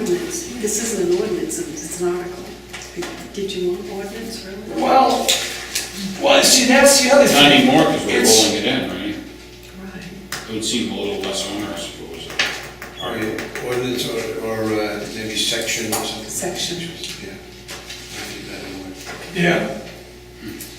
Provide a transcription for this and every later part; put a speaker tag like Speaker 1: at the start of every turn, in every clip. Speaker 1: ordinance. This isn't an ordinance, it's an article. Did you want ordinance, really?
Speaker 2: Well, well, see, that's the other thing.
Speaker 3: Not anymore, because we're
Speaker 2: It's-
Speaker 3: rolling it in, right?
Speaker 1: Right.
Speaker 3: It would seem a little less onerous if it was. a-
Speaker 4: Or ordinance or, or uh, maybe section or something.
Speaker 1: Section.
Speaker 4: Yeah. Might be better word.
Speaker 2: Yeah,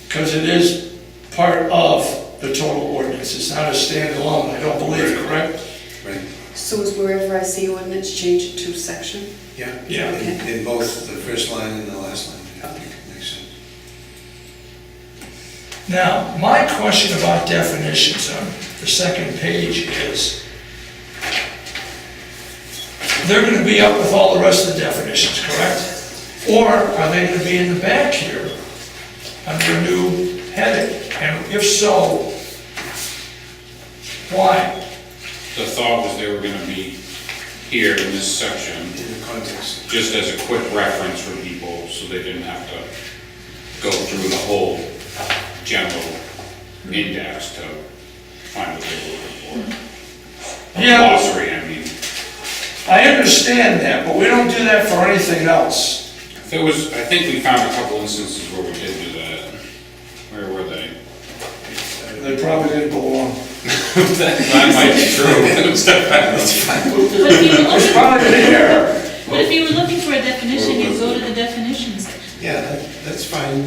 Speaker 2: because it is part of the total ordinance, it's not a standalone, I don't believe, correct?
Speaker 4: Right,
Speaker 1: So is wherever I see ordinance, change it to section?
Speaker 4: yeah.
Speaker 2: Yeah.
Speaker 4: In- In both the first line and the last line, I think it makes sense.
Speaker 2: Now, my question about definitions on the second page is, they're gonna be up with all the rest of the definitions, correct? Or are they gonna be in the back here, under a new heading? And if so, why?
Speaker 3: The thought was they were gonna be here in this section,
Speaker 4: In the context,
Speaker 3: just as a quick reference for people, so they didn't have to go through the whole general index to find what they were looking for.
Speaker 2: Yeah.
Speaker 3: Glossary, I mean.
Speaker 2: I understand that, but we don't do that for anything else.
Speaker 3: There was, I think we found a couple instances where we did do that. Where were they?
Speaker 2: They probably didn't belong.
Speaker 3: That might be true.
Speaker 5: But if you were
Speaker 2: It's
Speaker 5: looking,
Speaker 2: probably there.
Speaker 5: but if you were looking for a definition, you go to the definitions.
Speaker 4: yeah, that- that's fine.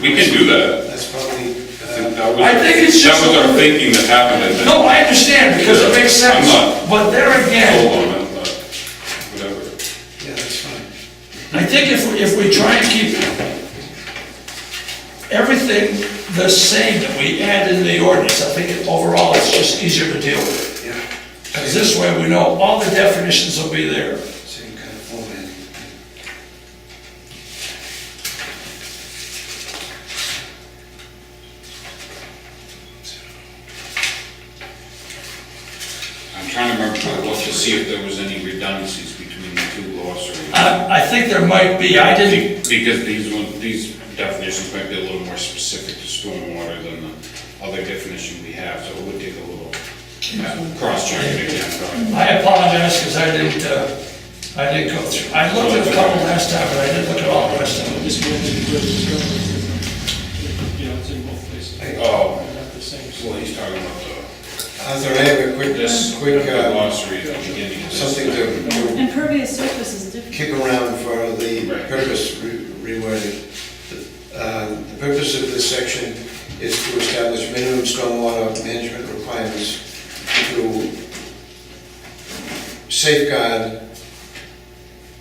Speaker 3: We can do that.
Speaker 4: That's probably, uh,
Speaker 3: That was-
Speaker 2: I think it's just-
Speaker 3: That was our thinking that happened at that.
Speaker 2: No, I understand, because it makes sense, but there again,
Speaker 3: Hold on, but whatever.
Speaker 4: yeah, that's fine.
Speaker 2: I think if, we- if we try and keep everything the same that we add in the ordinance, I think it- overall it's just easier to deal with.
Speaker 4: Yeah.
Speaker 2: Because this way we know all the definitions will be there.
Speaker 4: Same kind of format.
Speaker 3: I'm trying to remember, I looked to see if there was any redundancies between the two glossaries.
Speaker 2: I, I think there might be, I didn't,
Speaker 3: Be- Because these one, these definitions might be a little more specific to stormwater than the other definition we have, so it would take a little uh, cross-checking again. but-
Speaker 2: I apologize because I didn't, uh, I didn't go through. I looked at a couple last time, but I didn't look at all the rest of them.
Speaker 6: This one is where it's going. You know, it's in both places.
Speaker 3: Oh,
Speaker 6: Not the same.
Speaker 3: well, he's talking about the,
Speaker 4: Arthur, I have a quick,
Speaker 3: this,
Speaker 4: quick,
Speaker 3: the
Speaker 4: uh,
Speaker 3: glossary at the beginning of this.
Speaker 4: something to to
Speaker 5: Impervious surface is different.
Speaker 4: kick around for the
Speaker 3: Right.
Speaker 4: purpose re- rewording. The uh, the purpose of this section is to establish minimum stormwater management requirements to safeguard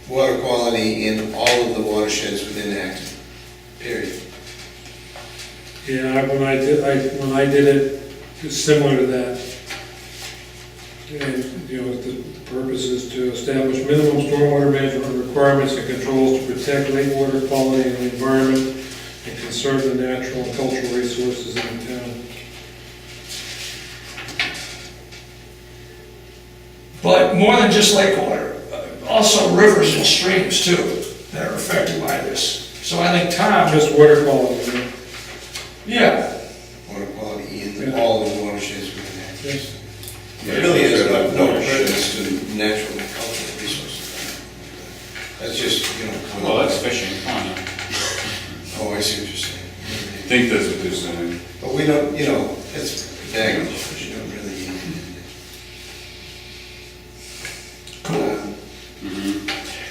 Speaker 4: water quality in all of the watersheds within Acton, period.
Speaker 6: Yeah, I- when I did, I, when I did it, it's similar to that. And, you know, the purpose is to establish minimum stormwater management requirements and controls to protect lake water quality and the environment and conserve the natural and cultural resources in the town.
Speaker 2: But more than just lake water, uh, also rivers and streams too that are affected by this. So I think Tom,
Speaker 6: Just water quality, you know.
Speaker 2: yeah,
Speaker 4: Water quality in
Speaker 6: Yeah.
Speaker 4: all of the watersheds within Acton.
Speaker 6: Yes.
Speaker 4: It really is
Speaker 3: Yeah,
Speaker 4: no
Speaker 3: it's
Speaker 4: no
Speaker 3: got a watershed.
Speaker 4: purpose to natural and cultural resources. That's just, you know.
Speaker 3: Well, that's fishing, fine.
Speaker 4: Oh, I see what you're saying.
Speaker 3: I think that's what they're saying.
Speaker 4: But we don't, you know, it's baggage, but you don't really need it. Um,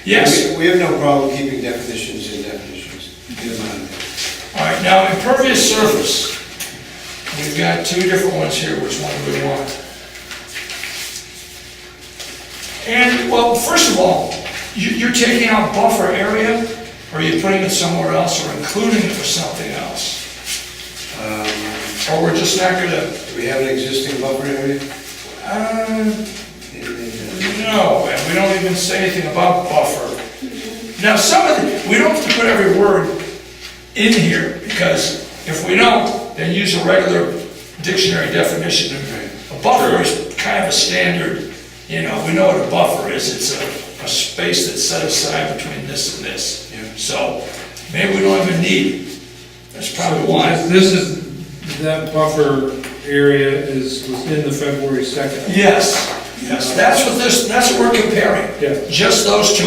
Speaker 2: yes.
Speaker 4: We we have no problem keeping definitions in definitions. Get them out of there.
Speaker 2: All right, now impervious surface. We've got two different ones here, which one do we want? And, well, first of all, you, you're taking out buffer area, or you're putting it somewhere else, or including it for something else?
Speaker 4: Um,
Speaker 2: Or we're just not gonna,
Speaker 4: Do we have an existing buffer area?
Speaker 2: uh,
Speaker 4: Maybe they do.
Speaker 2: No, and we don't even say anything about buffer. Now, some of the, we don't have to put every word in here, because if we don't, then use a regular dictionary definition. A buffer is kind of a standard, you know, we know what a buffer is, it's a, a space that's set aside between this and this.
Speaker 4: Yeah.
Speaker 2: So, maybe we don't even need, that's probably why.
Speaker 6: This is, that buffer area is within the February 2nd.
Speaker 2: Yes, yes, that's what this, that's what we're comparing.
Speaker 6: Yeah.
Speaker 2: Just those two